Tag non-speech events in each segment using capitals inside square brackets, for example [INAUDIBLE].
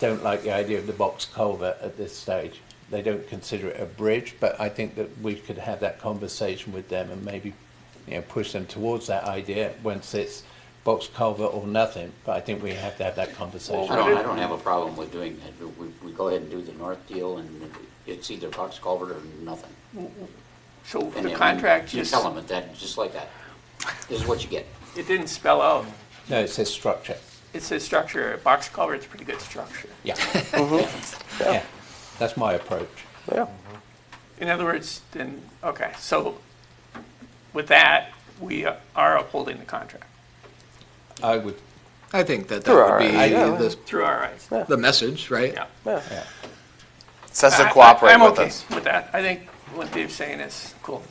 don't like the idea of the box culvert at this stage. They don't consider it a bridge, but I think that we could have that conversation with them and maybe, you know, push them towards that idea once it's box culvert or nothing. But I think we have to have that Well, conversation. I don't, I don't have a problem with doing that. We, we go ahead and do the north deal and it's either box culvert or nothing. So And the then contract You just, tell them that, just like that. This is what you [LAUGHS] get. it didn't spell out, No, it says structure. it says structure, a box culvert's a pretty good structure. Yeah. Mm-hmm. yeah. That's my approach. Yeah. In other words, then, okay, so with that, we are upholding the contract I would, I think that that There are, would be yeah. the, through our eyes, the message, right? yeah. Yeah. Says I- to I- cooperate with us. I'm okay with that. I think what Dave's saying is cool.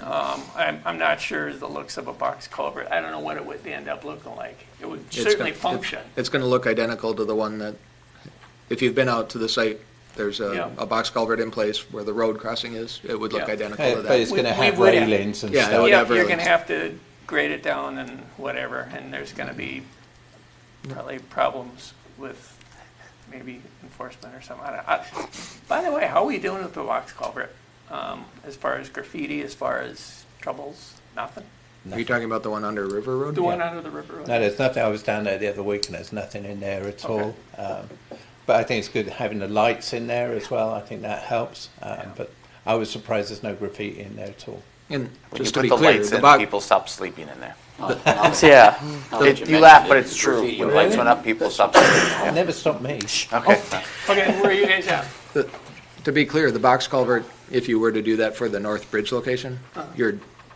Um, I'm, I'm not sure the looks of a box culvert. I don't know what it would end up looking like. It would It's certainly gonna- function. it- It's going to look identical to the one that, if you've been out to the site, there's Yeah. a, a box culvert in place where the road crossing is. It would look Yeah. identical uh, to but it's that. going to We- we have would have- railings and Yeah, stuff. Yeah, whatever. you're gonna have to grade it down and whatever, and there's gonna be probably problems with maybe enforcement or something. I don't- I- By the way, how are we doing with the box culvert? Um, as far as graffiti, as far as troubles, nothing? Are you talking about the one under River Road? The one under the river? road? No, there's nothing. I was down there the other week and there's nothing in there at Okay. all. Um, but I think it's good having the lights in there as well. I think that helps. Um, But I was surprised there's no graffiti in there at all. And When you just to put be the clear, lights the in, box, people stop sleeping in there. Now that- now that- Yeah. now that You mentioned laugh, it, but it's true. graffiti When or lights went up, people stopped sleeping. It never stopped me. Okay. Okay, where are you guys at? to be clear, the box culvert, if you were to do that for the North Bridge location, Uh-huh. you're,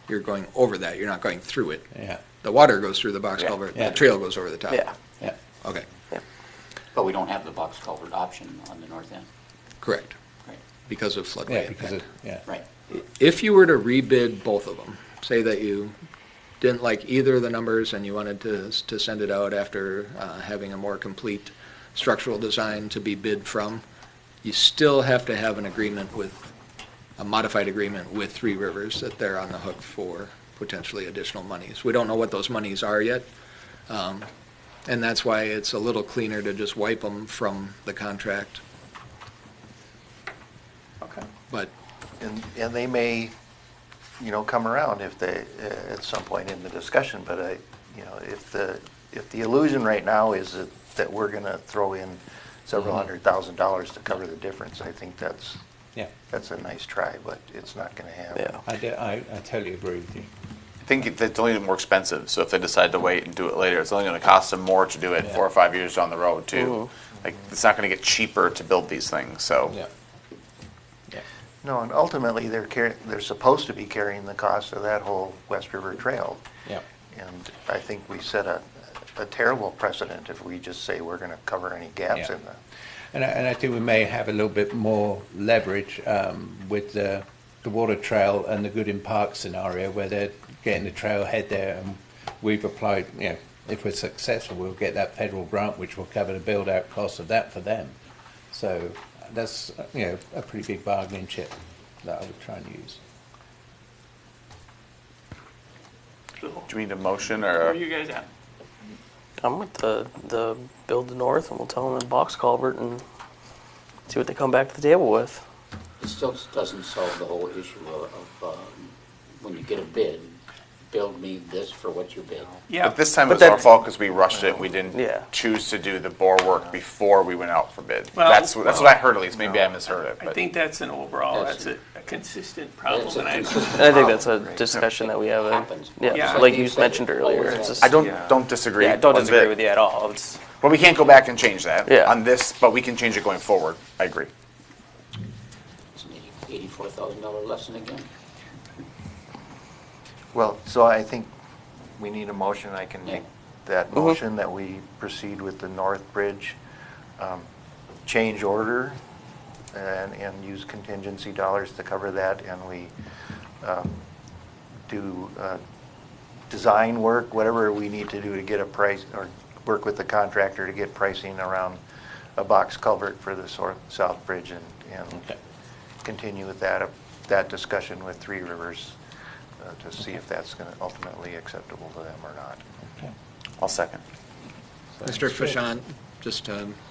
you're going over that. You're not going through it. Yeah, The water goes through the box Yeah. culvert, Yeah. the trail goes over the top. Yeah. yeah. Okay, But we don't have the box culvert option on the north end. correct, Right, because of floodway Yeah, impact. because it, yeah. right. If you were to rebid both of them, say that you didn't like either of the numbers and you wanted to, to send it out after uh, having a more complete structural design to be bid from, you still have to have an agreement with, a modified agreement with Three Rivers that they're on the hook for potentially additional monies. We don't know what those monies are yet. um, And that's why it's a little cleaner to just wipe them from the contract. Okay. But And, and they may, you know, come around if they, uh, at some point in the discussion, but I, you know, if the, if the illusion right now is that, that we're gonna throw in several hundred thousand dollars to cover the difference, I think that's, Yeah, that's a nice try, but it's not gonna happen. Yeah. I, do, I, I totally agree with you. I think it- it's only more expensive, so if they decide to wait and do it later, it's only gonna cost them more to do it four or five years down the road, too. Like, it's not gonna get cheaper to build these things, so. Yeah. Yeah. No, and ultimately, they're carrying, they're supposed to be carrying the cost of that whole West River Trail. Yeah. And I think we set a, a terrible precedent if we just say we're gonna cover any gaps Yeah. in the. And I, and I think we may have a little bit more leverage um, with the, the water trail and the Gooding Park scenario where they're getting the trailhead there and we've applied, you know, if we're successful, we'll get that federal grant which will cover the build out cost of that for them. So that's, uh, you know, a pretty big bargaining chip that I would try and use. So, Do we need a motion Where are or? you guys at? I'm with the the build the north, and we'll tell them the box culvert and see what they come back to the table with. It still doesn't solve the whole issue of, of, um, when you get a bid, build me this for what you bid. Yeah, But this time it But was our that- fault because we rushed it. We Yeah. didn't choose to do the bore work before we went out for bid. Well- That's, wh- that's what I heard at least. Maybe I misheard it, I but. think that's an overall, That's- that's a a consistent That's problem, a [LAUGHS] and I, consistent And I think that's a problem, right? discussion that we have. uh Happens. yeah, Yeah. like Like you you said, mentioned it earlier, always it's just I don't, don't disagree. yeah, I don't one disagree bit. with you at all. It's But we can't go back and change that. Yeah. On this, but we can change it going forward. I agree. It's an eighty-four thousand dollar lesson again. Well, so I think we need a motion, I can make that Mhm. motion that we proceed with the North Bridge um, change order and, and use contingency dollars to cover that, and we um, do uh, design work, whatever we need to do to get a price, or work with the contractor to get pricing around a box culvert for the sor- South Bridge and, and Okay. continue with that, uh, that discussion with Three Rivers uh, to see if that's going to ultimately acceptable to them or not. Okay. I'll second. So- Mr. Fashan, just to